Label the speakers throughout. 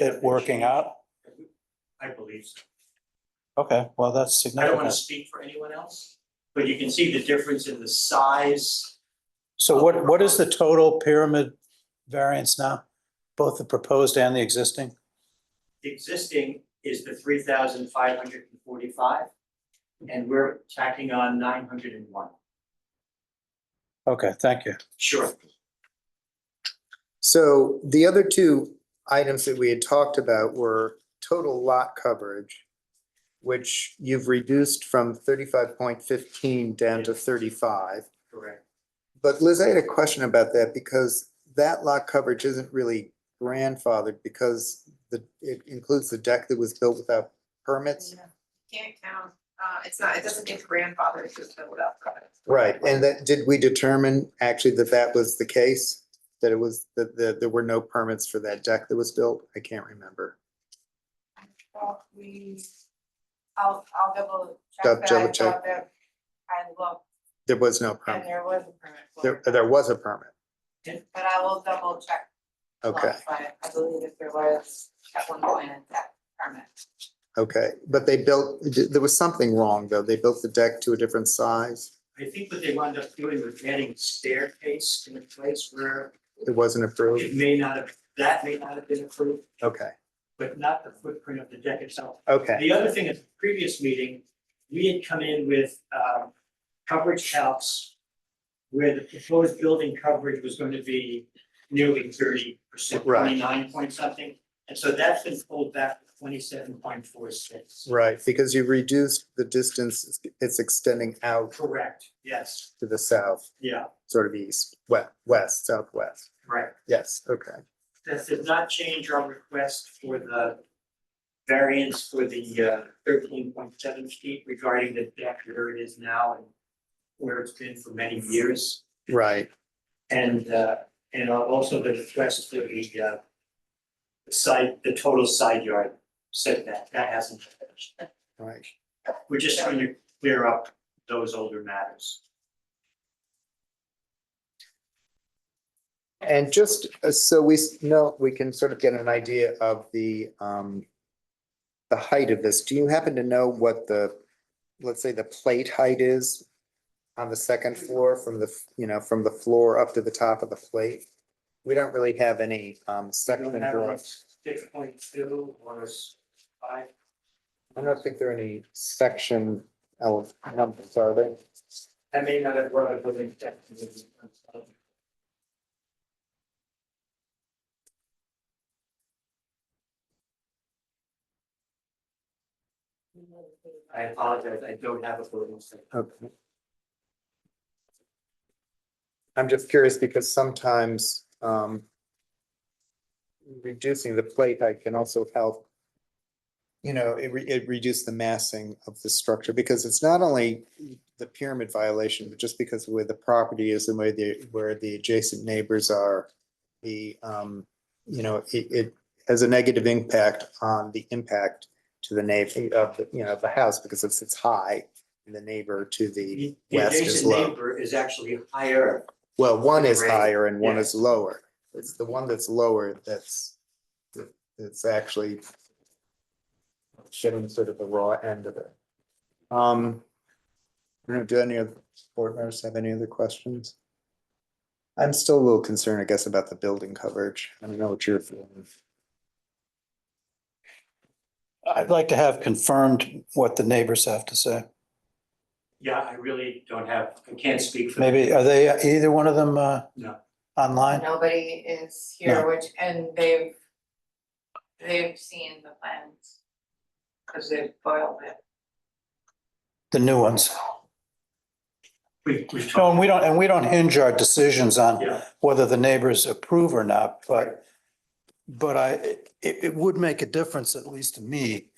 Speaker 1: it working out?
Speaker 2: I believe so.
Speaker 1: Okay, well, that's
Speaker 2: I don't want
Speaker 1: significant.
Speaker 2: to speak for anyone else, but you can see the difference in the size.
Speaker 1: So what, what is the total pyramid variance now? Both the proposed and the existing?
Speaker 2: The Existing is the three thousand five hundred and forty-five, and we're tacking on nine hundred and one.
Speaker 1: Okay, thank you.
Speaker 2: Sure.
Speaker 3: So the other two items that we had talked about were total lot coverage, which you've reduced from thirty-five point fifteen down to thirty-five.
Speaker 2: Correct.
Speaker 3: But Liz, I had a question about that because that lot coverage isn't really grandfathered because the, it includes the deck that was built without permits.
Speaker 4: Yeah, Can't count, uh, it's not, it doesn't get grandfathered if it's built without covenant.
Speaker 3: Right, and that, did we determine actually that that was the case? That it was, that, that there were no permits for that deck that was built? I can't remember.
Speaker 4: Well, we, I'll, I'll double
Speaker 3: Dou-
Speaker 4: check that,
Speaker 3: double
Speaker 4: I
Speaker 3: check.
Speaker 4: thought that, I looked,
Speaker 3: There was no
Speaker 4: and
Speaker 3: permit.
Speaker 4: there was a permit
Speaker 3: There,
Speaker 4: for it,
Speaker 3: there was a permit.
Speaker 4: but I will double check.
Speaker 3: Okay,
Speaker 4: But I believe if there was at one point that permit.
Speaker 3: okay. But they built, there was something wrong though. They built the deck to a different size.
Speaker 2: I think what they wound up doing was adding staircase in a place where
Speaker 3: It wasn't
Speaker 2: it
Speaker 3: approved.
Speaker 2: may not have, that may not have been approved,
Speaker 3: Okay,
Speaker 2: but not the footprint of the deck itself.
Speaker 3: okay,
Speaker 2: The other thing, at the previous meeting, we had come in with um, coverage counts where the proposed building coverage was going to be nearly thirty percent,
Speaker 3: Right.
Speaker 2: twenty-nine point something. And so that's been pulled back to twenty-seven point four six.
Speaker 3: right. Because you reduced the distance it's extending out
Speaker 2: Correct, yes,
Speaker 3: to the south,
Speaker 2: yeah,
Speaker 3: sort of east, west, west, southwest.
Speaker 2: correct.
Speaker 3: Yes, okay,
Speaker 2: That does not change our request for the variance for the uh, thirteen point seven feet regarding the deck where it is now and where it's been for many years.
Speaker 3: right.
Speaker 2: And, uh, and also the request for the, uh, the side, the total side yard setback, that hasn't changed.
Speaker 3: Right,
Speaker 2: We're just trying to clear up those older matters.
Speaker 3: and just uh, so we s- know, we can sort of get an idea of the, um, the height of this. Do you happen to know what the, let's say the plate height is on the second floor from the, f- you know, from the floor up to the top of the plate? We don't really have any, um, section drawings.
Speaker 2: Six point two or five.
Speaker 3: I don't think there are any section ele- numbers, are there?
Speaker 2: That may not have run a building deck. I apologize, I don't have a building set.
Speaker 3: Okay. I'm just curious because sometimes um. Reducing the plate height can also help. You know, it re- it reduce the massing of the structure because it's not only the pyramid violation, but just because of where the property is and where the where the adjacent neighbors are. The um, you know, it it has a negative impact on the impact to the neighbor of the, you know, of the house because it's it's high. And the neighbor to the
Speaker 2: The the
Speaker 3: west is
Speaker 2: adjacent
Speaker 3: low.
Speaker 2: neighbor is actually higher.
Speaker 3: Well, one is
Speaker 2: Right.
Speaker 3: higher and one
Speaker 2: Yeah.
Speaker 3: is lower. It's the one that's lower that's, that's actually getting sort of the raw end of it. Um, I don't know, do any of the board members have any other questions? I'm still a little concerned, I guess, about the building coverage. I don't know what you're feeling.
Speaker 1: I'd like to have confirmed what the neighbors have to say.
Speaker 2: Yeah, I really don't have, I can't speak for.
Speaker 1: Maybe, are they, either one of them, uh,
Speaker 2: No.
Speaker 1: online?
Speaker 4: Nobody is
Speaker 1: No.
Speaker 4: here, which, and they've, they've seen the plans. Cause they've boiled it.
Speaker 1: The new ones.
Speaker 2: We, we
Speaker 1: No,
Speaker 2: talked,
Speaker 1: and we don't, and we don't hinge our decisions on
Speaker 2: yeah,
Speaker 1: whether the neighbors approve or not, but, but I, it, it would make a difference, at least to me,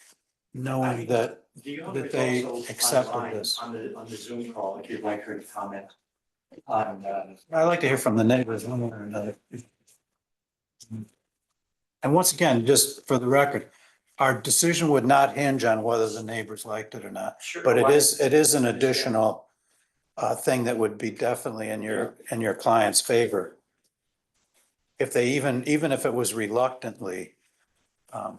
Speaker 1: knowing that,
Speaker 2: the owner
Speaker 1: that
Speaker 2: is
Speaker 1: they
Speaker 2: also
Speaker 1: accepted
Speaker 2: online
Speaker 1: this.
Speaker 2: on the, on the Zoom call, if you'd like her to comment on, uh,
Speaker 1: I like to hear from the neighbors one way or another. And once again, just for the record, our decision would not hinge on whether the neighbors liked it or not.
Speaker 2: Sure.
Speaker 1: But it
Speaker 2: why-
Speaker 1: is, it is an additional uh, thing that would be definitely in your, in your client's favor. If they even, even if it was reluctantly, um,